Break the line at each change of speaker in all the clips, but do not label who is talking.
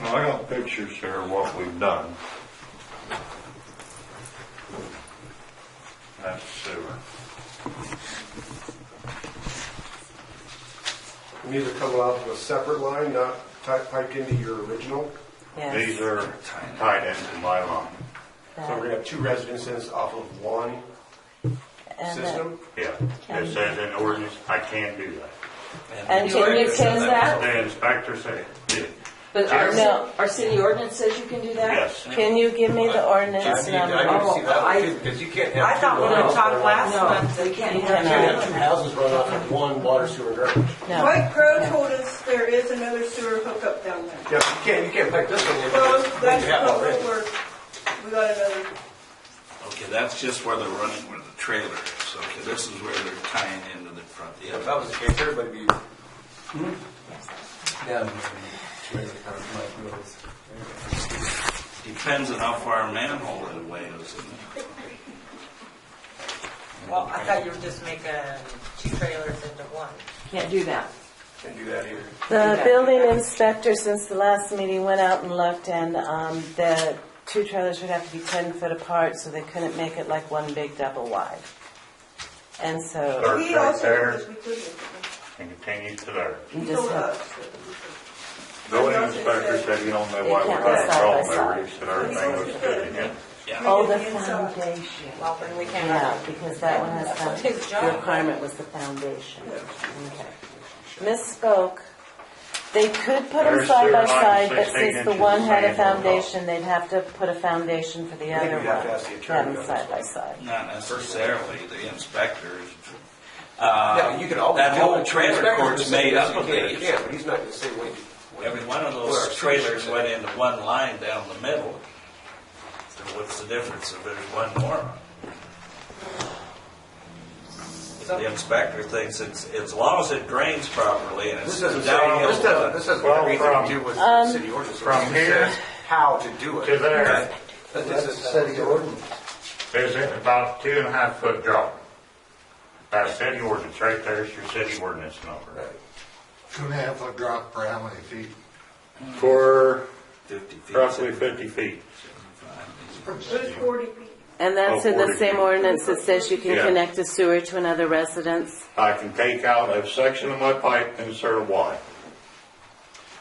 Now, I got pictures here of what we've done. That's sewer.
And these are coming off of a separate line, not ti- piped into your original.
These
Yes.
are tied into my line.
So we're gonna have two residences off of one
And the-
system.
Yeah, it says in ordinance, I can do that.
And
The
can you
ordinance
can
says
that?
The inspector said, yeah,
But
Yes. No.
our, our city ordinance says you can do that?
yes.
Can you give me the
I
ordinance
need, I need to see
number?
that
I-
one too, because you can't
I
have two
thought when we
lines.
talked last
No.
month, we can't
You
have.
Can't
cannot.
two
have two
of them.
houses run off of one water sewer garbage.
No.
Mike Crowe told us there is another sewer hookup down there.
Yeah, you can't, you can't pipe this one in.
Well,
because you
that's
have
not
already.
what we're, we got another,
Okay, that's just where they're running where the trailer is. Okay, this is where they're tying into the front.
Yeah, If
Yeah,
that was the case, everybody would be
Uh,
down here. in trailer park, like those.
depends on how far a manhole it away is.
Well, I thought you were just making two trailers into one.
Can't do that.
Can't do that either.
The building inspector, since the last meeting, went out and looked, and um, the two trailers would have to be 10 foot apart, so they couldn't make it like one big double wide. And so,
Start
he
right
also
there.
told us we couldn't.
And continue to there.
you
He
just
told
have,
us that we couldn't.
Building inspector said, you don't know why we're
They
having
can't go side by
problems. They
side.
said everything was good again.
oh, the
We did the inside.
foundation.
Well, then we can't.
Yeah, because that one has,
His
found-
job.
the requirement was the foundation. Okay. Misspoke. They could put them
There's
side
their
by
line,
side, but
16
since the
inches
one
of
had a
sand on top.
foundation, they'd have to put a foundation for the
I think
other
we'd have to ask the
one.
attorney
Have
on
them
this
side by
one.
side.
Not necessarily the inspectors.
Yeah, you can always.
That
tell
whole
the
trailer
inspector
court's
to say
made
yes,
up
you
of
can or
these.
can't, but he's not gonna say what you. what-
Every one of
what our
those trailers went into one line down the middle. So what's the difference if there's one more? If The inspector thinks it's, as long as it drains properly and
This
it's
doesn't
downhill.
say, this doesn't, this doesn't have
Well,
anything
from-
to do with the city ordinance. It
from
just
here
says How to do it.
To there,
That doesn't say the ordinance.
there's about two and a half foot drop. That's city ordinance, right there's your city ordinance number.
Two and a half foot drop for how many feet?
For
50 feet.
roughly fifty feet.
It was forty feet.
And that's
Oh,
in the
forty
same
feet.
ordinance that says you can
Yeah.
connect a sewer to another residence.
I can take out a section of my pipe and insert a Y.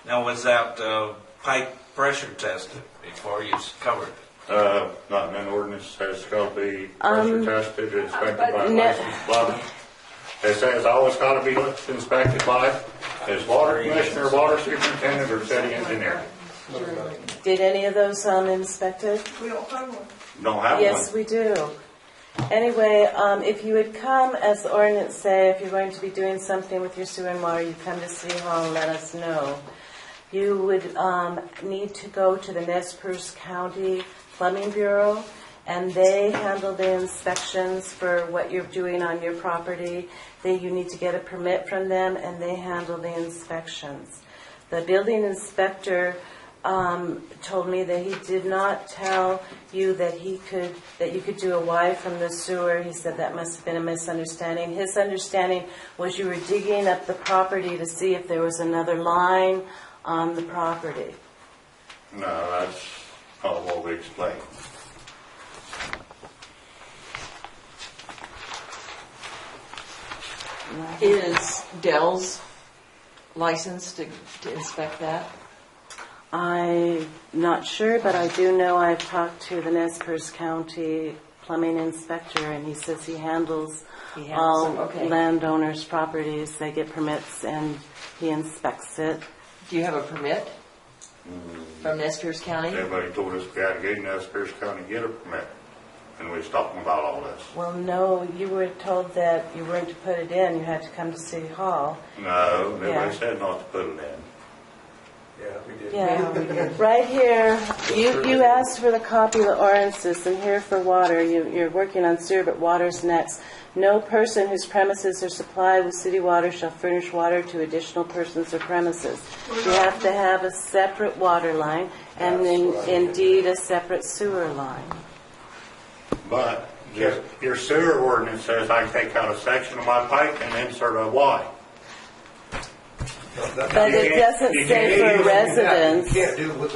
Now, was that uh, pipe pressure tested before you covered it?
Uh, not in an ordinance, it's gotta be pressure tested, inspected by a
Um, no.
licensed plumber. It says always gotta be inspected by his water commissioner, water superintendent, or city engineer.
Did any of those um, inspected?
We don't have one.
Don't have
Yes,
one.
we do. Anyway, um, if you would come, as the ordinance say, if you're going to be doing something with your sewer and water, you come to City Hall and let us know. You would, um, need to go to the Nez Perce County Plumbing Bureau, and they handle the inspections for what you're doing on your property. They, you need to get a permit from them, and they handle the inspections. The building inspector um, told me that he did not tell you that he could, that you could do a Y from the sewer. He said that must have been a misunderstanding. His understanding was you were digging up the property to see if there was another line on the property.
No, that's not what we explained.
Is Dell's licensed to to inspect that?
I'm not sure, but I do know I've talked to the Nez Perce County plumbing inspector, and he says he handles
He handles
all
it, okay.
landowners' properties. They get permits, and he inspects it.
Do you have a permit from Nez Perce County?
Everybody told us we had to get in Nez Perce County to get a permit, and we was talking about all this.
Well, no, you were told that you weren't to put it in, you had to come to City Hall.
No, nobody
Yeah.
said not to put it in.
Yeah, we did.
Yeah, right here, you, you asked for the copy of the ordinances, and here for water, you, you're working on sewer, but water's next. No person whose premises are supplied with city water shall furnish water to additional persons or premises. You have to have a separate water line, and then indeed a separate sewer line.
But your- your sewer ordinance says I can take out a section of my pipe and insert a Y.
But it
can't- you
doesn't say
can't
for
even do
residents.
You can't do what